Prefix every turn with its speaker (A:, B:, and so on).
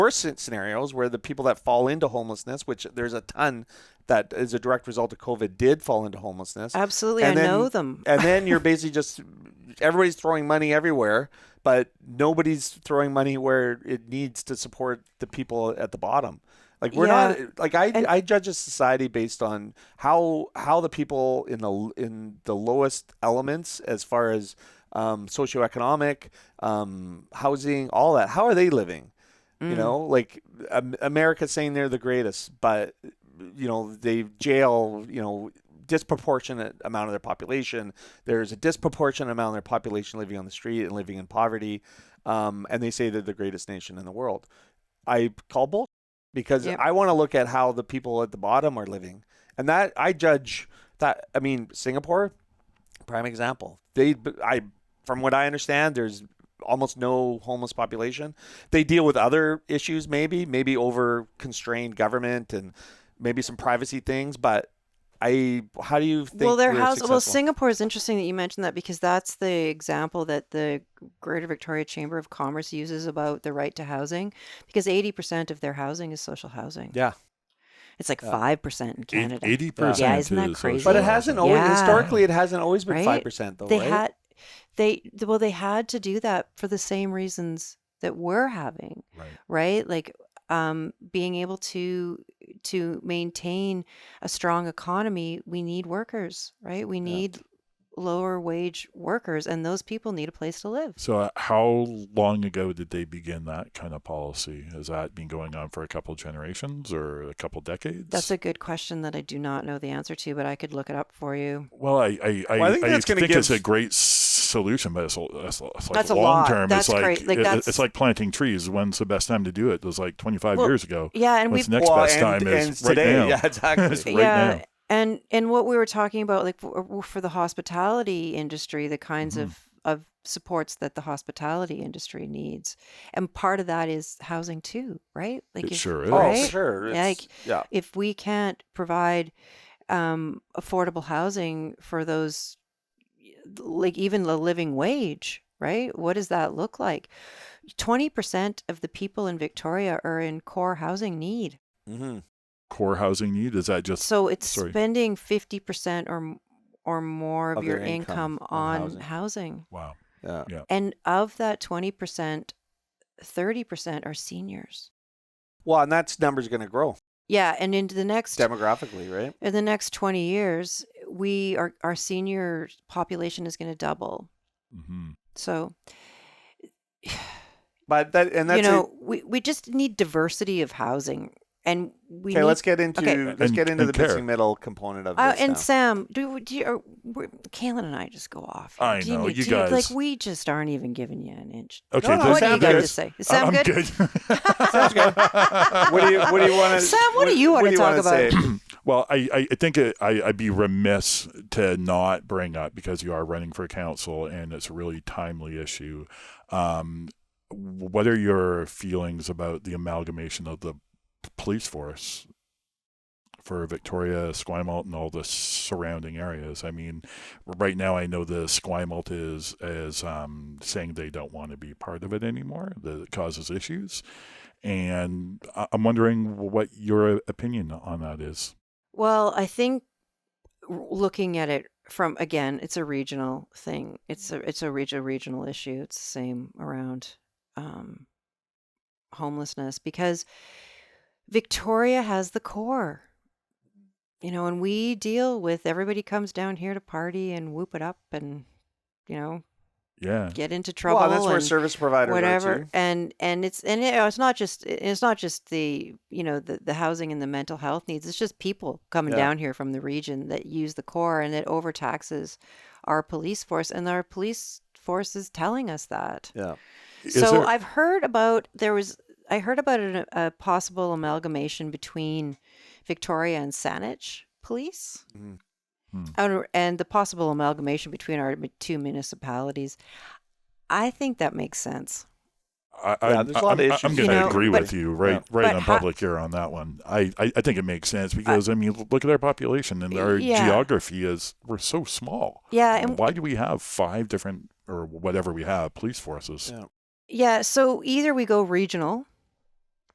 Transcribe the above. A: worst scenarios where the people that fall into homelessness, which there's a ton that is a direct result of COVID, did fall into homelessness.
B: Absolutely,
A: And
B: I know them.
A: and then you're basically just everybody's throwing money everywhere, but nobody's throwing money where it needs to support the people at the bottom. Like we're
B: Yeah.
A: not like I I judge a society based on how how the people in the in the lowest elements as far as um, socioeconomic, um, housing, all that. How are they living? You know, like um, America's saying they're the greatest, but you know they jail you know disproportionate amount of their population. There's a disproportionate amount of their population living on the street and living in poverty, um, and they say they're the greatest nation in the world. I call bull because
B: Yep.
A: I want to look at how the people at the bottom are living, and that I judge that. I mean, Singapore, prime example. They, I, from what I understand, there's almost no homeless population. They deal with other issues, maybe, maybe over constrained government and maybe some privacy things. But I, how do you think?
B: well, their
A: we're
B: house. Well,
A: successful?
B: Singapore is interesting that you mentioned that because that's the example that the Greater Victoria Chamber of Commerce uses about the right to housing, because eighty percent of their housing is social housing.
A: Yeah,
B: It's like five percent in Canada.
C: Eighty percent.
B: Yeah, isn't that crazy?
A: but it hasn't always
B: Yeah.
A: historically. It hasn't always been
B: Right?
A: five percent though.
B: they
A: right?
B: had, they well, they had to do that for the same reasons that we're having,
C: Right.
B: right? Like um, being able to to maintain a strong economy, we need workers, right? We need lower wage workers, and those people need a place to live.
C: So, uh, how long ago did they begin that kind of policy? Has that been going on for a couple generations or a couple decades?
B: That's a good question that I do not know the answer to, but I could look it up for you.
C: well, I I, I,
A: Well, I think
C: I
A: that's gonna
C: it's
A: give-
C: a great s- solution, but it's, l- it's, l- it's like
B: That's a
C: long
B: lot.
C: term.
B: That's
C: it's like,
B: great. Like,
C: it-
B: that's-
C: it's like planting trees. When's the best time to do it? It was like twenty five
B: Well,
C: years ago.
B: Yeah, and
C: When's
B: we've
C: the next
A: Well,
C: best
A: and-
C: time
A: and
C: is right
A: today,
C: now.
A: yeah, exactly.
C: It's right
B: yeah
C: now.
B: and and what we were talking about like for, for the hospitality industry the kinds
C: Mhm.
B: of of supports that the hospitality industry needs and part of that is housing too right like
C: It sure is.
A: Oh,
B: right?
A: sure.
B: Yeah,
A: It's- yeah.
B: if we can't provide um affordable housing for those like even the living wage right what does that look like 20% of the people in victoria are in core housing need
A: hmm
C: Core housing need is that just
B: so it's
C: sorry.
B: spending 50% or m- or more of,
A: Of
B: your
A: their income
B: income,
A: on
B: on
A: housing.
B: housing.
C: wow?
A: Yeah.
B: And of that 20%, 30% are seniors.
A: Well, and that's number's going to grow
B: Yeah, and into the next
A: demographically, right?
B: in the next 20 years, we are our senior population is going to double.
C: Mm-hmm.
B: So,
A: But that and that's
B: you
A: it.
B: know, we, we just need diversity of housing and we
A: okay.
B: need
A: Let's get into
B: okay.
A: let's
C: And-
A: get into
C: and
A: the
C: care.
A: missing middle component of
B: Uh,
A: this.
B: and
A: now.
B: Sam, do, do you, are, we're, Kaylin and I just go off. here.
C: I
B: Do you
C: know,
B: need-
C: you
B: do like
C: guys-
B: we just aren't even giving you an inch.
C: Okay,
A: No, no,
C: does
A: what do
C: Sam
A: you got
C: good?
A: to
B: say? Is Sam
C: I'm
B: good?
C: Sounds good.
A: what do you what do you want to
B: Sam, what do you wanna talk
A: about?
C: Well, I, I- I think it, I, I'd be remiss to not bring up because you are running for council and it's a really timely issue. Um, what are your feelings about the amalgamation of the police force for Victoria, Esquimalt, and all the surrounding areas? I mean, right now I know the Esquimalt is is um, saying they don't want to be part of it anymore. That it causes issues, and I- I'm wondering what your opinion on that is.
B: Well, I think r- looking at it from again, it's a regional thing. It's a it's a regional regional issue. It's the same around um, homelessness because Victoria has the core, you know, and we deal with everybody comes down here to party and whoop it up and you know
C: Yeah.
B: get into trouble.
A: Well, that's where
B: and-
A: service providers Are
B: whatever
A: too.
B: and and it's and you know, it's not just it's not just the you know the, the housing and the mental health needs it's just people coming
A: Yeah.
B: down here from the region that use the core and it overtaxes our police force and our police force is telling us that
A: Yeah.
C: Is
B: so
C: there-
B: i've heard about there was i heard about an, a possible amalgamation between victoria and saanich police
A: Mhm.
C: Hmm.
B: And- and the possible amalgamation between our two municipalities i think that makes sense
C: I,
A: Yeah,
C: I,
A: there's a lot of
C: I'm-
A: issues
C: I'm
A: there.
C: going to
B: You know,
C: agree
B: but-
C: with you right,
A: Yeah.
C: right
B: but
C: on
B: how- Uh,
C: public here on that one. I, I, I think it makes sense because I mean, look at our population and our
B: Yeah.
C: geography is we're so small.
B: Yeah, and
C: Why do we have five different or whatever we have police forces?
A: Yeah.
B: yeah, so either we go regional